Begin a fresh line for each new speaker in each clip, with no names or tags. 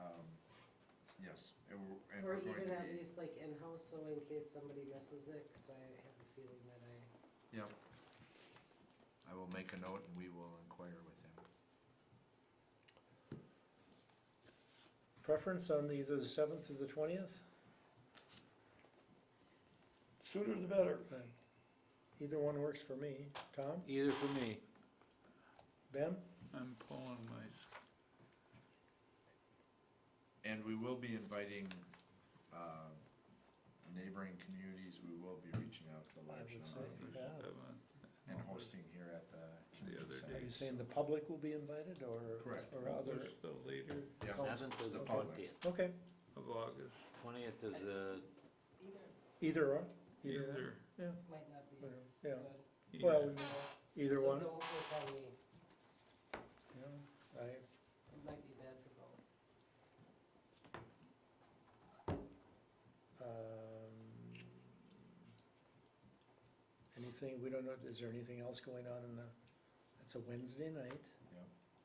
Um, Yes, and we're, and
Or
we're going
even
to
at
be,
least like in-house, so in case somebody misses it, cause I have a feeling that I,
yep. I will make a note and we will inquire with him.
Preference on the- either the seventh or the twentieth?
Sooner the better.
Either one works for me. Tom,
Either for me,
Ben?
I'm pulling my,
And we will be inviting, uh, neighboring communities, we will be reaching out to a
I
large
would
number of
say,
people
yeah.
and hosting here at the community
other
center.
Are
day.
you saying the public will be invited or?
Correct.
Or other,
the later
Yeah.
Seventh to
The
the
public.
twentieth.
okay,
of August,
Twentieth is uh, the,
either
either or, either one,
either,
might not be good.
whatever, yeah, well,
either.
either
So
one,
don't look on me,
yeah, I,
it might be bad for both.
um. Anything, we don't know, is there anything else going on in the, it's a Wednesday night,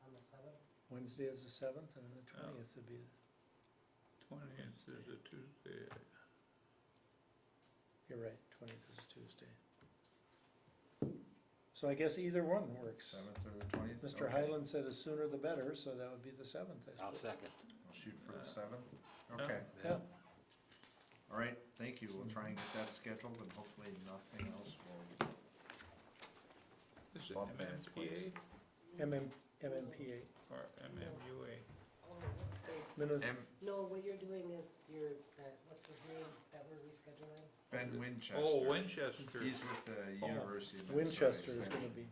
On the seventh,
Wednesday is the seventh and the
Oh.
Yeah.
twentieth would be,
twentieth is a Tuesday.
you're right, twentieth is Tuesday. So I guess either one works.
Seventh or the twentieth?
Mr. Highland said the sooner the better, so that would be the seventh, I
I'll
suppose.
second.
We'll shoot for the
Uh,
seventh,
yeah.
okay,
Yeah.
all right, thank you, we'll try and get that scheduled and hopefully nothing else will,
Is it
Bob Vance,
MMPA
please.
MM, MMPA,
or MMUA?
oh, okay.
Minnes-
M-
No, what you're doing is your, that, what's his name, that we're rescheduling?
Ben Winchester.
Oh, Winchester,
He's with the
Oh.
University of Minnesota.
Winchester is gonna be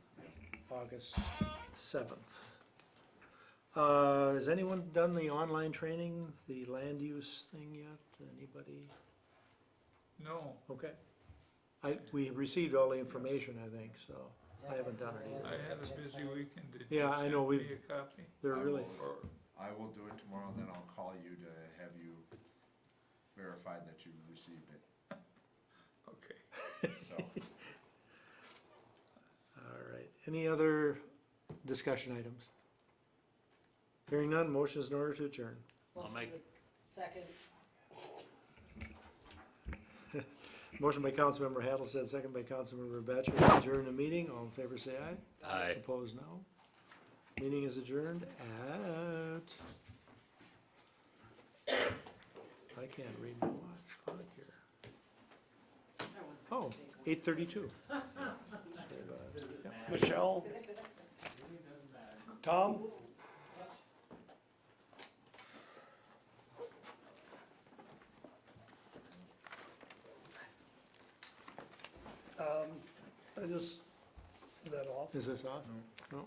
August seventh. Uh, has anyone done the online training, the land use thing yet? Anybody?
no,
Okay. I, we received all the information, I think, so I haven't done it
I had a busy weekend, did you
Yeah, I know,
send me
we've-
a copy?
they're
I
really,
will-
Or,
I will do it tomorrow, and then I'll call you to have you verify that you received it,
okay,
so.
all right. Any other discussion items? Hearing none, motion is in order to adjourn.
Oh,
I'll
Motion
make-
to- Second,
Motion by Councilmember Hattlestead, second by Councilmember Batchor, to adjourn the meeting. All in favor, say aye.
Aye.
Opposed, no. Meeting is adjourned at. I can't read my watch clock here. Oh, eight thirty-two.
Michelle? Tom? Um, I just, is that off?
Is this on? No.